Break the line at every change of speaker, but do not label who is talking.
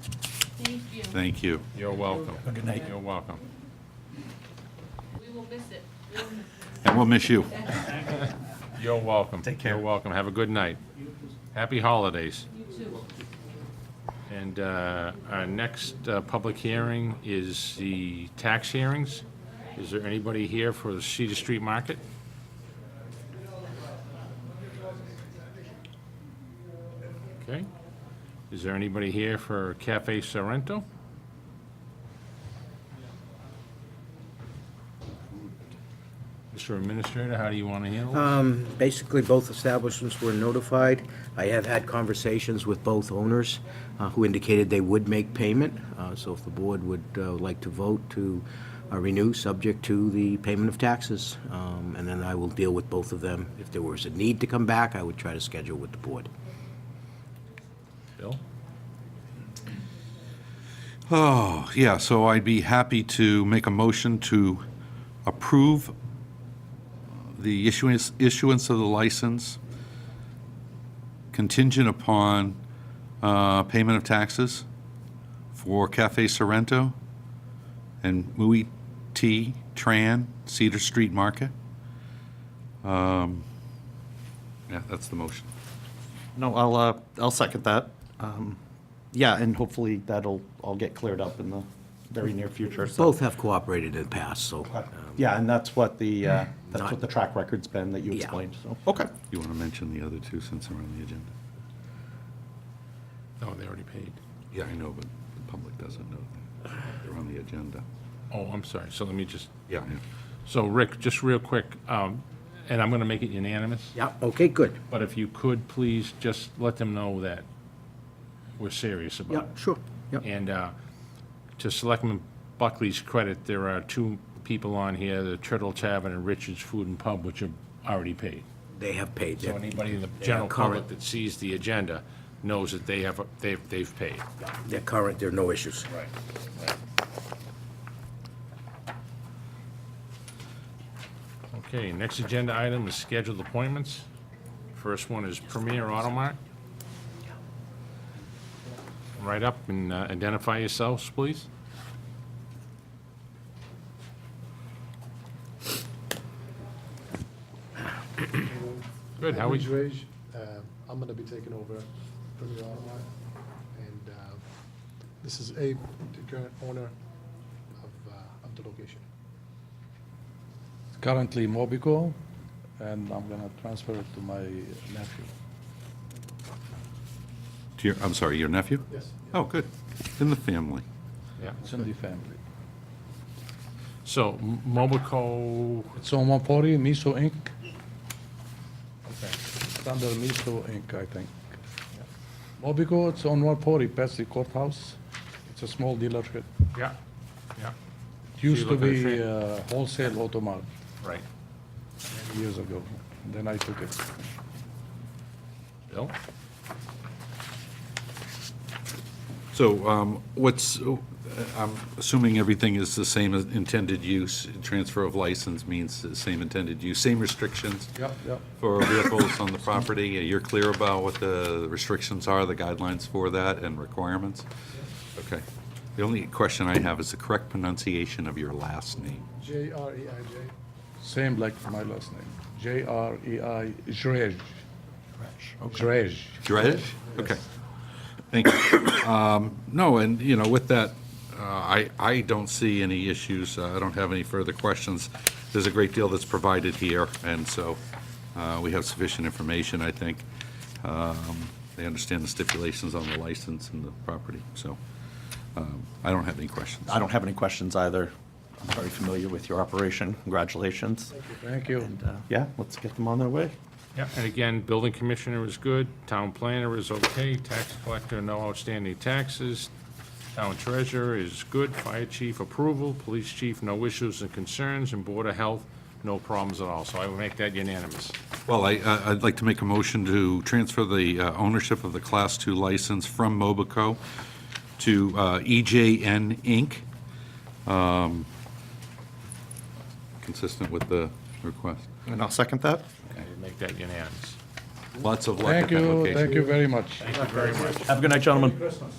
Thank you.
Thank you.
You're welcome.
Good night.
You're welcome.
We will miss it. We'll miss it.
And we'll miss you.
You're welcome.
Take care.
You're welcome. Have a good night. Happy holidays.
You too.
And uh, our next uh, public hearing is the tax hearings. Is there anybody here for the Cedar Street Market? Okay. Is there anybody here for Cafe Sorrento? Mr. Administrator, how do you want to handle it?
Um, Basically, both establishments were notified. I have had conversations with both owners uh, who indicated they would make payment. Uh, So if the board would uh, like to vote to uh, renew, subject to the payment of taxes, um, and then I will deal with both of them. If there was a need to come back, I would try to schedule with the board.
Bill?
Oh, yeah, so I'd be happy to make a motion to approve the issuance, issuance of the license contingent upon uh, payment of taxes for Cafe Sorrento and Mui T Tran Cedar Street Market. Um, Yeah, that's the motion.
No, I'll, uh, I'll second that. Um, Yeah, and hopefully that'll all get cleared up in the very near future, so. Uh,
Both have cooperated in the past, so.
Yeah, and that's what the, uh, that's
Not-
what the track record's been that you
Yeah.
explained, so, okay.
You want to mention the other two since they're on the agenda?
No, Oh, they already paid.
Yeah, I know, but the public doesn't know that. They're on the agenda.
Oh, I'm sorry. So let me just
Yeah.
So Rick, just real quick, um, and I'm going to make it unanimous,
Yeah, okay, good.
but if you could, please just let them know that we're serious
Yeah,
about
sure. Yeah.
it. And uh, to Selectman Buckley's credit, there are two people on here, the Turtle Tavern and Richard's Food and Pub, which are already paid.
They have paid.
So
They're-
anybody in the general
current.
public that sees the agenda knows that they have, they've, they've paid.
They're current, there are no issues.
Right. Okay, next agenda item is scheduled appointments. First one is Premier Auto Mart. Right up and uh, identify yourselves, please. Good, how are
Edwin
you?
Drage, uh, I'm going to be taking over from the auto mart. And uh, this is Abe, the current owner of, uh, of the location.
currently Mobico, and I'm gonna transfer it to my nephew.
To your, I'm sorry, your nephew?
Yes.
Oh, good. In the family.
Yeah.
It's in the family.
So, M- Mobico,
It's on Mapori, Miso Inc. It's under Miso Inc., I think. Mobico, it's on Mapori, past the courthouse. It's a small dealership.
yeah, yeah,
It used to
look at the
be
thing.
uh, wholesale automart
right.
years ago. Then I took it.
Bill?
So um, what's, uh, I'm assuming everything is the same as intended use. Transfer of license means the same intended use, same restrictions
Yep, yep.
for vehicles on the property. You're clear about what the restrictions are, the guidelines for that and requirements? Okay. The only question I have is the correct pronunciation of your last name.
J R E I J.
Same like my last name. J R E I, Jrej. Jrej.
Dredge? Okay. Thank you. Um, No, and, you know, with that, uh, I, I don't see any issues. Uh, I don't have any further questions. There's a great deal that's provided here, and so uh, we have sufficient information, I think. Um, They understand the stipulations on the license and the property, so um, I don't have any questions.
I don't have any questions either. I'm very familiar with your operation. Congratulations.
Thank you.
And, uh, Yeah, let's get them on their way.
Yeah, and again, building commissioner is good, town planner is okay, tax collector, no outstanding taxes, town treasurer is good, fire chief approval, police chief, no issues and concerns, and board of health, no problems at all. So I will make that unanimous.
Well, I, I- I'd like to make a motion to transfer the uh, ownership of the Class II license from Mobico to uh, EJN Inc., um, consistent with the request.
And I'll second that.
I will make that unanimous.
Lots of luck at
Thank
that
you,
location.
thank you very much.
Have a good night, gentlemen.